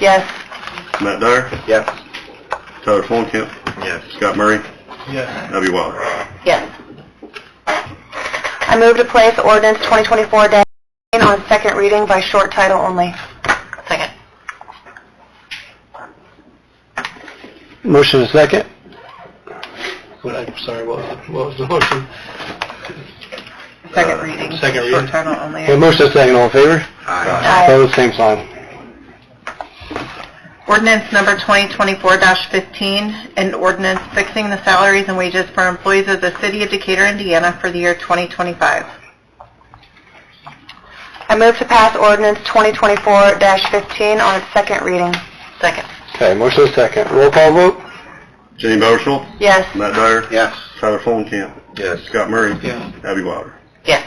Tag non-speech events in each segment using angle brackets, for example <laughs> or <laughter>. Yes. Matt Dyer, Yes. Tyler Fulenkamp, Yes. Scott Murray, Yes. Abby Wilder. Yes. I move to place ordinance 2024-10 on second reading by short title only. Second. Motion is second. What, I'm sorry, what, what was the motion? Second reading. Uh, Second reading. Short title only. Yeah, motion is second, all in favor? Aye. Opposed, same sign. Ordinance number 2024-15, an ordinance fixing the salaries and wages for employees of the City of Decatur, Indiana for the year 2025. I move to pass ordinance 2024-15 on its second reading. Second. Okay, motion is second. Roll call vote? Jenny Bowersholt, Yes. Matt Dyer, Yes. Tyler Fulenkamp, Yes. Scott Murray, Yeah. Abby Wilder. Yes.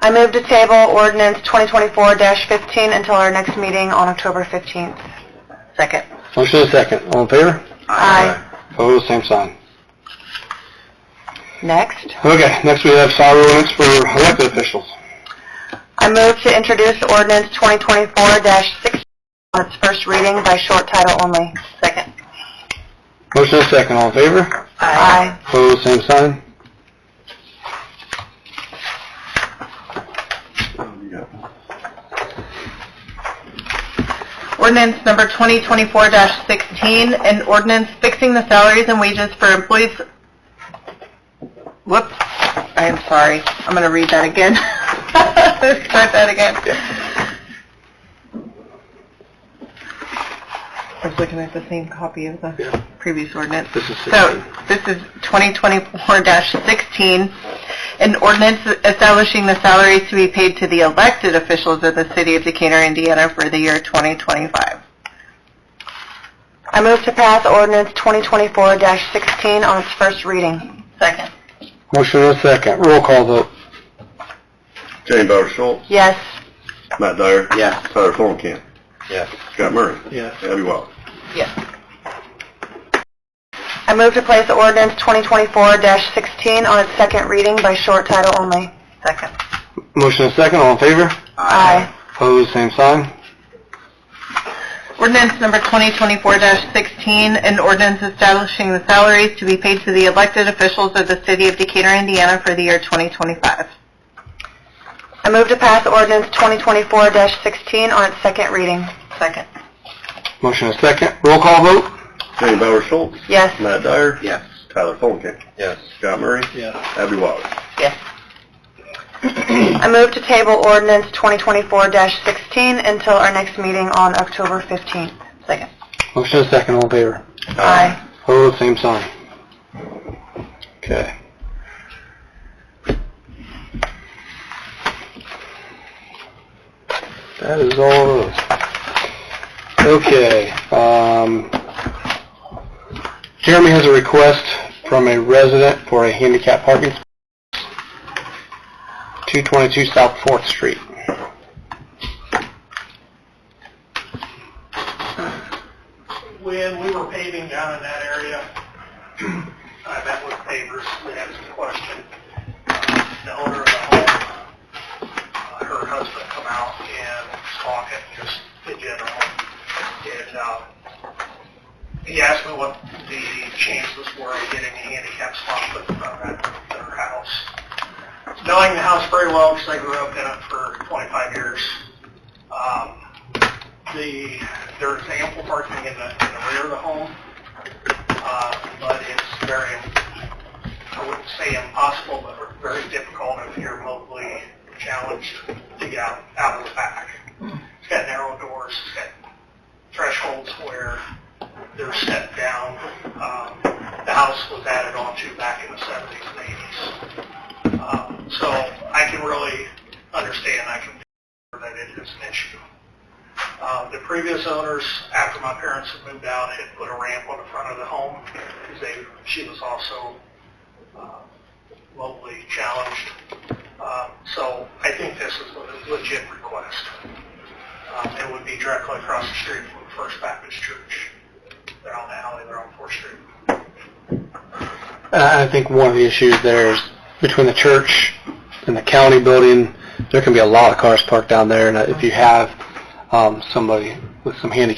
I move to table ordinance 2024-15 until our next meeting on October 15th. Second. Motion is second, all in favor? Aye. Opposed, same sign. Next. Okay, next we have salary ordinance for elected officials. I move to introduce ordinance 2024-16 on its first reading by short title only. Second. Motion is second, all in favor? Aye. Opposed, same sign. Ordinance number 2024-16, an ordinance fixing the salaries and wages for employees, whoops, I am sorry, I'm going to read that again. <laughs> Start that again. I was looking at the same copy of Yeah. the previous ordinance. This is So, 16. this is 2024-16, an ordinance establishing the salaries to be paid to the elected officials of the City of Decatur, Indiana for the year 2025. I move to pass ordinance 2024-16 on its first reading. Second. Motion is second, roll call vote? Jenny Bowersholt, Yes. Matt Dyer, Yes. Tyler Fulenkamp, Yes. Scott Murray, Yes. Abby Wilder. Yes. I move to place ordinance 2024-16 on its second reading by short title only. Second. Motion is second, all in favor? Aye. Opposed, same sign. Ordinance number 2024-16, an ordinance establishing the salaries to be paid to the elected officials of the City of Decatur, Indiana for the year 2025. I move to pass ordinance 2024-16 on its second reading. Second. Motion is second, roll call vote? Jenny Bowersholt, Yes. Matt Dyer, Yes. Tyler Fulenkamp, Yes. Scott Murray, Yes. Abby Wilder. Yes. <clears throat> I move to table ordinance 2024-16 until our next meeting on October 15th. Second. Motion is second, all in favor? Aye. Opposed, same sign. Okay. That is all of those. Okay, um, Jeremy has a request from a resident for a handicap parking space, 222 South Fourth Street. when we were paving down in that area, <clears throat> I met with pavers, we had some question. The owner of the home, uh, her husband come out and was talking, just in general. And, uh, he asked me what the chances were of getting a handicap spot put in front of that- their house. Knowing the house very well, because I grew up in it for 25 years, um, the, there's ample parking in the, in the rear of the home, uh, but it's very, I wouldn't say impossible, but very difficult if you're mobily challenged to get out, out of the back. It's got narrow doors, it's got thresholds where they're set down. Um, the house was added onto back in the seventies and eighties. Um, so I can really understand, I can, that it is an issue. Uh, The previous owners, after my parents had moved out, had put a ramp on the front of the home because they, she was also uh, locally challenged. Uh, So I think this is a legit request. Um, It would be directly across the street from First Baptist Church. They're on the alley, they're on Fourth Street. I I think one of the issues there is between the church and the county building, there can be a lot of cars parked down there, and if you have um, somebody with some handicap